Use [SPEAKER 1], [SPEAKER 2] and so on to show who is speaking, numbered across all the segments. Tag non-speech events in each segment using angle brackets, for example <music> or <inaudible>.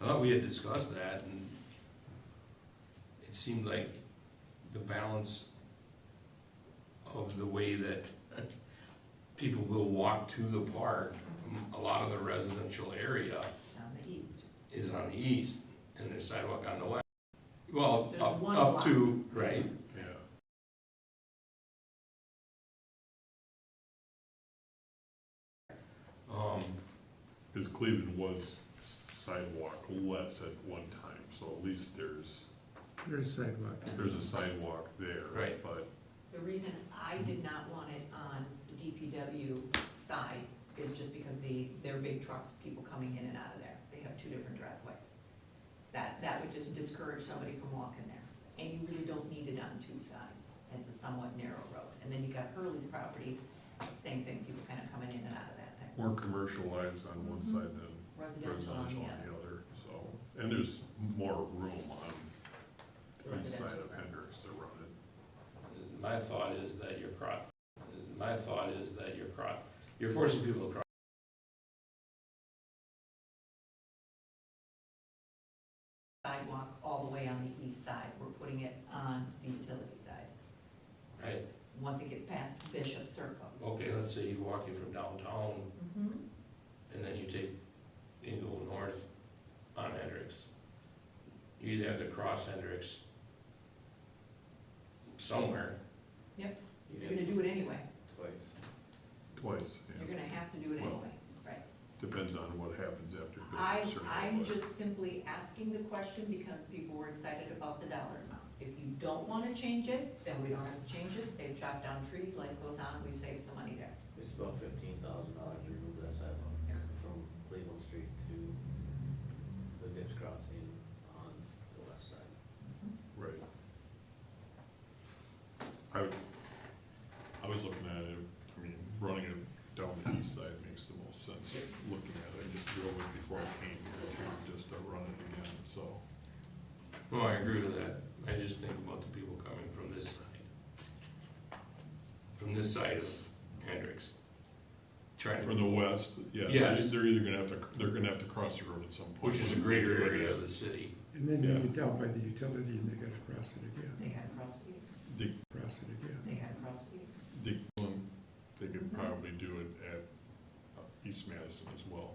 [SPEAKER 1] I thought we had discussed that, and it seemed like the balance of the way that <laughs> people will walk to the park, a lot of the residential area
[SPEAKER 2] on the east.
[SPEAKER 1] is on the east, and there's sidewalk on the west. Well,
[SPEAKER 2] There's
[SPEAKER 1] up,
[SPEAKER 2] one
[SPEAKER 1] up
[SPEAKER 2] block.
[SPEAKER 1] to, right,
[SPEAKER 3] Yeah.
[SPEAKER 1] um,
[SPEAKER 3] Because Cleveland was sidewalk less at one time, so at least there's,
[SPEAKER 4] There's sidewalk.
[SPEAKER 3] there's a sidewalk there.
[SPEAKER 1] Right.
[SPEAKER 3] But
[SPEAKER 2] The reason I did not want it on the DPW side is just because the, their big trucks, people coming in and out of there, they have two different driveways. That, that would just discourage somebody from walking there, and you really don't need it on two sides, it's a somewhat narrow road. And then you got Hurley's property, same thing, people kind of coming in and out of that thing,
[SPEAKER 3] more commercialized on
[SPEAKER 2] Mm-hmm.
[SPEAKER 3] one side than
[SPEAKER 2] residential on
[SPEAKER 3] residential
[SPEAKER 2] the
[SPEAKER 3] on
[SPEAKER 2] other.
[SPEAKER 3] the other, so. And there's more room on the east side of
[SPEAKER 2] Residential.
[SPEAKER 3] Hendrix to run it.
[SPEAKER 1] my thought is that you're cro, my thought is that you're cro, you're forcing people to cross.
[SPEAKER 2] Sidewalk all the way on the east side, we're putting it on the utility side,
[SPEAKER 1] right?
[SPEAKER 2] once it gets past Bishop Circle.
[SPEAKER 1] Okay, let's say you're walking from downtown
[SPEAKER 2] Mm-hmm.
[SPEAKER 1] and then you take, you go north on Hendricks. You either have to cross Hendricks somewhere.
[SPEAKER 2] Yep. You're
[SPEAKER 1] You
[SPEAKER 2] gonna do it anyway,
[SPEAKER 5] Twice.
[SPEAKER 3] Twice,
[SPEAKER 2] you're
[SPEAKER 3] yeah.
[SPEAKER 2] gonna have to do it
[SPEAKER 3] Well,
[SPEAKER 2] anyway, right?
[SPEAKER 3] Depends on what happens after. Bishop
[SPEAKER 2] I,
[SPEAKER 3] Circle,
[SPEAKER 2] I'm
[SPEAKER 3] but-
[SPEAKER 2] just simply asking the question because people were excited about the dollar amount. If you don't wanna change it, then we don't have to change it, they've chopped down trees, life goes on, we've saved some money there.
[SPEAKER 5] It's about fifteen thousand dollars to remove that sidewalk from Cleveland Street to the ditch crossing on the west side.
[SPEAKER 3] Right. I, would- I was looking at it, I mean, running it down the east side makes the most sense, looking at it, I just drove it before I came here, too, just to run it again, so.
[SPEAKER 1] No, I agree with that. I just think about the people coming from this side. From this side of Hendricks. Trying to,
[SPEAKER 3] From the west, yeah, they're,
[SPEAKER 1] Yes.
[SPEAKER 3] they're either gonna have to, they're gonna have to cross the road at some point.
[SPEAKER 1] which is a greater area of the city.
[SPEAKER 4] And then you
[SPEAKER 3] Yeah.
[SPEAKER 4] get down by the utility and they gotta cross it
[SPEAKER 2] They
[SPEAKER 4] again,
[SPEAKER 2] gotta cross streets,
[SPEAKER 3] They,
[SPEAKER 4] cross it again.
[SPEAKER 2] they gotta cross streets.
[SPEAKER 3] they, um, they could
[SPEAKER 1] Mm-hmm.
[SPEAKER 3] probably do it at uh, East Madison as well.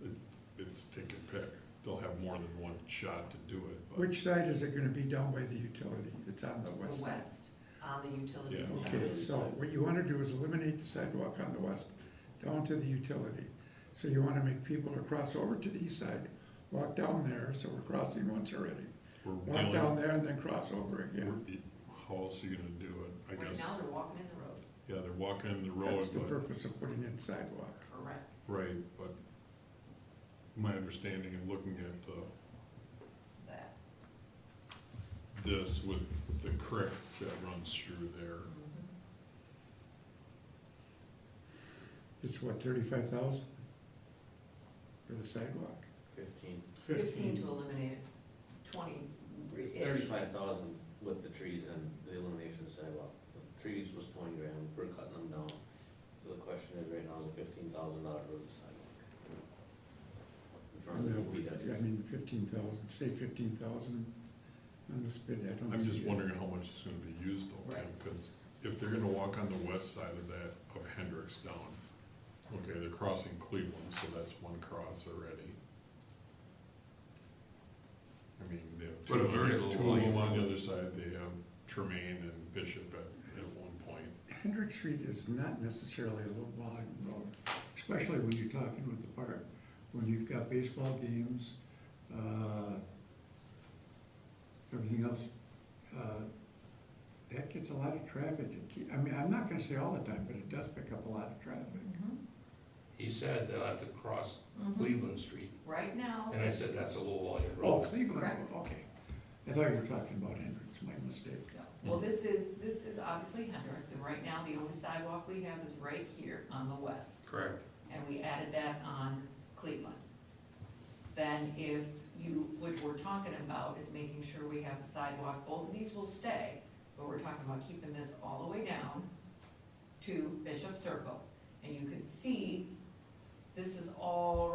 [SPEAKER 3] It, it's take and pick, they'll have more than one shot to do it, but.
[SPEAKER 4] Which side is it gonna be down by the utility? It's on the
[SPEAKER 2] The
[SPEAKER 4] west side.
[SPEAKER 2] west, on the utility
[SPEAKER 3] Yeah.
[SPEAKER 2] side.
[SPEAKER 4] Okay, so what you wanna do is eliminate the sidewalk on the west, down to the utility. So you wanna make people to cross over to the east side, walk down there, so we're crossing once already.
[SPEAKER 3] we're
[SPEAKER 4] Walk
[SPEAKER 3] dealing-
[SPEAKER 4] down there and then cross over again.
[SPEAKER 3] We're- How else are you gonna do it, I
[SPEAKER 2] Right
[SPEAKER 3] guess?
[SPEAKER 2] now, they're walking in the road,
[SPEAKER 3] Yeah, they're walking in the road,
[SPEAKER 4] That's the
[SPEAKER 3] but,
[SPEAKER 4] purpose of putting in sidewalk.
[SPEAKER 2] correct.
[SPEAKER 3] right, but my understanding and looking at uh, the,
[SPEAKER 2] That,
[SPEAKER 3] this with the creek that runs through there,
[SPEAKER 4] It's what, thirty-five thousand? For the sidewalk?
[SPEAKER 5] Fifteen,
[SPEAKER 2] fifteen to eliminate it, twenty.
[SPEAKER 5] thirty-five thousand with the trees and the elimination of sidewalk. The Trees was twenty grand, we're cutting them down. So the question is right now, is a fifteen thousand dollar road sidewalk. In
[SPEAKER 4] I
[SPEAKER 5] front of the DPW.
[SPEAKER 4] mean, fifteen thousand, say fifteen thousand on this bid, I don't
[SPEAKER 3] I'm
[SPEAKER 4] see
[SPEAKER 3] just
[SPEAKER 4] it.
[SPEAKER 3] wondering how much is gonna be used though, Tim,
[SPEAKER 2] Right.
[SPEAKER 3] because if they're gonna walk on the west side of that, of Hendricks down, okay, they're crossing Cleveland, so that's one cross already. I mean, they have two,
[SPEAKER 1] But a very
[SPEAKER 3] two
[SPEAKER 1] low
[SPEAKER 3] of
[SPEAKER 1] volume.
[SPEAKER 3] them on the other side, they have Tremaine and Bishop at, at one point.
[SPEAKER 4] Hendrick Street is not necessarily a low volume road, especially when you're talking with the park, when you've got baseball games, uh, everything else, uh, that gets a lot of traffic. It ke- I mean, I'm not gonna say all the time, but it does pick up a lot of traffic.
[SPEAKER 1] He said they'll have to cross
[SPEAKER 2] Mhm.
[SPEAKER 1] Cleveland Street,
[SPEAKER 2] Right now.
[SPEAKER 1] and I said that's a low volume
[SPEAKER 4] Oh,
[SPEAKER 1] road.
[SPEAKER 4] Cleveland,
[SPEAKER 2] Correct.
[SPEAKER 4] okay. I thought you were talking about Hendricks, my mistake.
[SPEAKER 2] No. Well, this is, this is obviously Hendricks, and right now, the only sidewalk we have is right here on the west,
[SPEAKER 1] Correct.
[SPEAKER 2] and we added that on Cleveland. Then if you, what we're talking about is making sure we have a sidewalk, both of these will stay, but we're talking about keeping this all the way down to Bishop Circle, and you can see, this is all